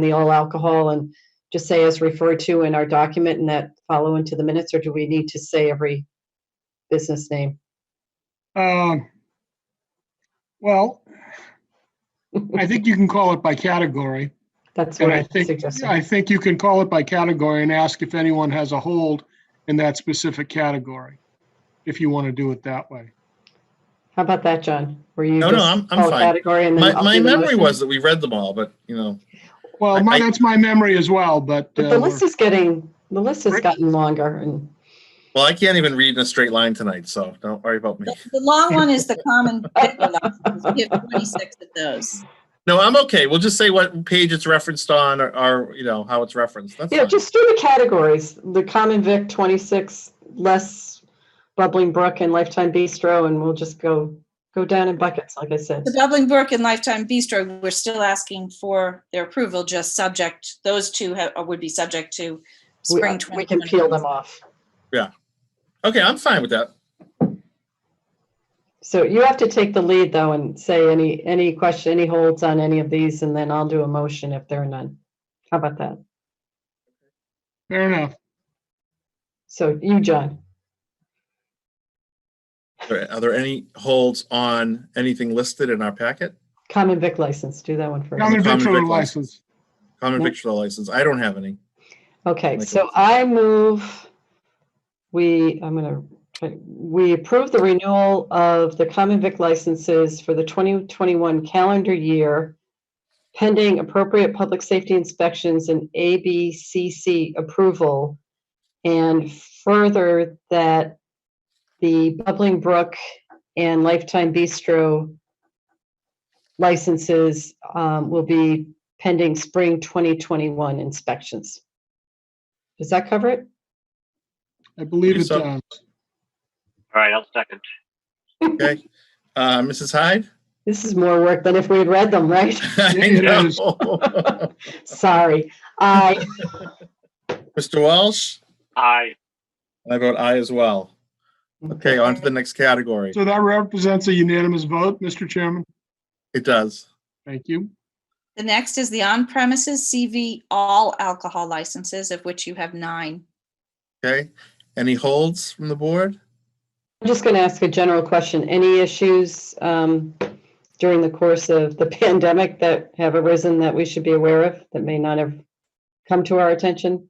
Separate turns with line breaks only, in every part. the all alcohol and just say as referred to in our document and that follow into the minutes, or do we need to say every business name?
Um, Well, I think you can call it by category.
That's
And
what
I
I
think,
suggested.
I think you can call it by category and ask if anyone has a hold in that specific category, if you want to do it that way.
How about that, John? Were you
No, no,
just
I'm- I'm
all
fine.
category and then
My,
I'll
my
do the
memory
motion?
was that we read them all, but you know,
Well,
I-
my,
I-
that's my memory as well, but.
But
uh,
the
we're-
list is getting, the list has
Rick?
gotten longer and
well, I can't even read in a straight line tonight, so don't worry about me.
The the long one is the common vic license. We have 26 of those.
No, I'm okay. We'll just say what page it's referenced on or, or you know, how it's referenced. That's
Yeah,
fine.
just do the categories, the common vic twenty-six, less bubbling brook and lifetime bistro, and we'll just go, go down in buckets, like I said.
The Bubbling Brook and Lifetime Bistro, we're still asking for their approval, just subject, those two ha- uh, would be subject to
We- uh,
spring
We can peel
2021.
them off.
Okay, I'm fine with that.
So you have to take the lead though and say any, any question, any holds on any of these, and then I'll do a motion if there are none. How about that?
Fair enough.
So you, John,
Are there- Are there any holds on anything listed in our packet?
common vic license, do that one first.
Common
Common
victular
vic license.
license.
Common
No.
victual license. I don't have any.
Okay,
Like
so
it's-
I move, we, I'm gonna, try- we approve the renewal of the common vic licenses for the 2021 calendar year pending appropriate public safety inspections and ABCC approval. And further that the Bubbling Brook and Lifetime Bistro licenses um, will be pending spring 2021 inspections. Does that cover it?
I believe
Believe
it's,
so.
um,
All right, I'll second.
Okay. Uh, Mrs. Hyde?
This is more work than if we had read them, right?
I
It
know.
is.
Sorry. I,
Mr. Walsh?
Aye.
I vote aye as well. Okay, on to the next category.
so that represents a unanimous vote, Mr. Chairman.
It does.
Thank you.
The next is the on-premises CV all alcohol licenses, of which you have nine.
Okay. Any holds from the board?
I'm just going to ask a general question. Any issues um, during the course of the pandemic that have arisen that we should be aware of that may not have come to our attention?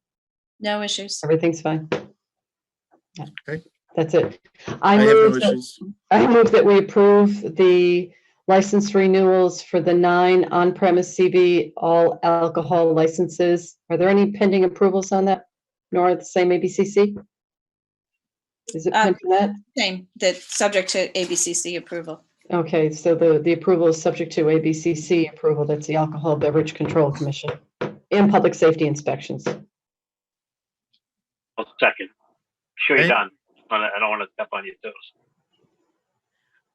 No issues.
Everything's fine? Yeah.
Okay.
That's it. I
I have no
move that
issues.
I move that we approve the license renewals for the nine on-premise CV all alcohol licenses. Are there any pending approvals on that? Nor the same ABCC? Is it
Uh,
pending that?
Same, that, subject to ABCC approval.
Okay, so the, the approval is subject to ABCC approval. That's the Alcohol Beverage Control Commission and Public Safety Inspections.
I'll second. Sure you're
Okay.
done. I I don't want to step on your toes.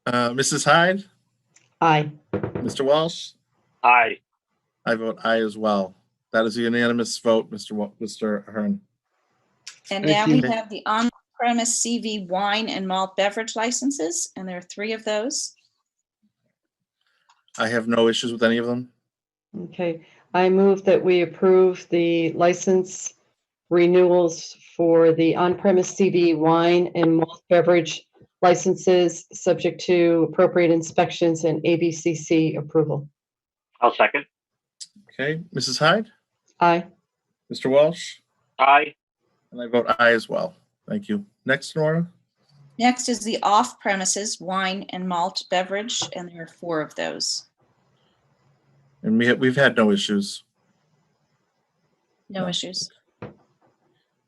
Uh, Mrs. Hyde?
Aye.
Mr. Walsh?
Aye.
I vote aye as well. That is a unanimous vote, Mr. Wa- Mr. Hearn.
And now
Thank
we
you.
have the on-premise CV wine and malt beverage licenses, and there are three of those.
I have no issues with any of them.
Okay, I move that we approve the license renewals for the on-premise CV wine and malt beverage licenses, subject to appropriate inspections and ABCC approval.
I'll second.
Okay, Mrs. Hyde,
Aye.
Mr. Walsh,
Aye.
and I vote aye as well. Thank you. Next, Nora.
Next is the off-premises wine and malt beverage, and there are four of those.
And we, ha- we've had no issues.
No
No.
issues.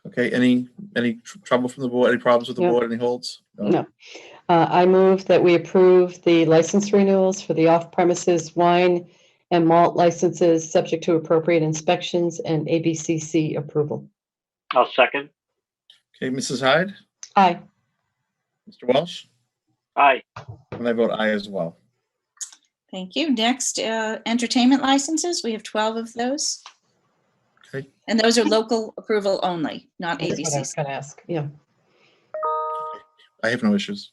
Okay, any, any tr- trouble from the board, any problems with the
No.
board, any holds?
No. Uh, I move that we approve the license renewals for the off-premises wine and malt licenses, subject to appropriate inspections and ABCC approval.
I'll second.
Okay, Mrs. Hyde,
Aye.
Mr. Walsh,
Aye.
and I vote aye as well.
Thank you. Next, uh, entertainment licenses. We have 12 of those.
Okay.
And those are local approval only, not
That's what I was
ABCC.
going to ask. Yeah.
I have no issues.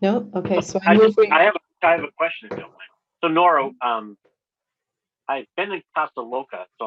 No? Okay, so I
I
move
just,
we.
I have, a- I have a question, if you don't mind. So Nora, um, I've been in Casa Loca, so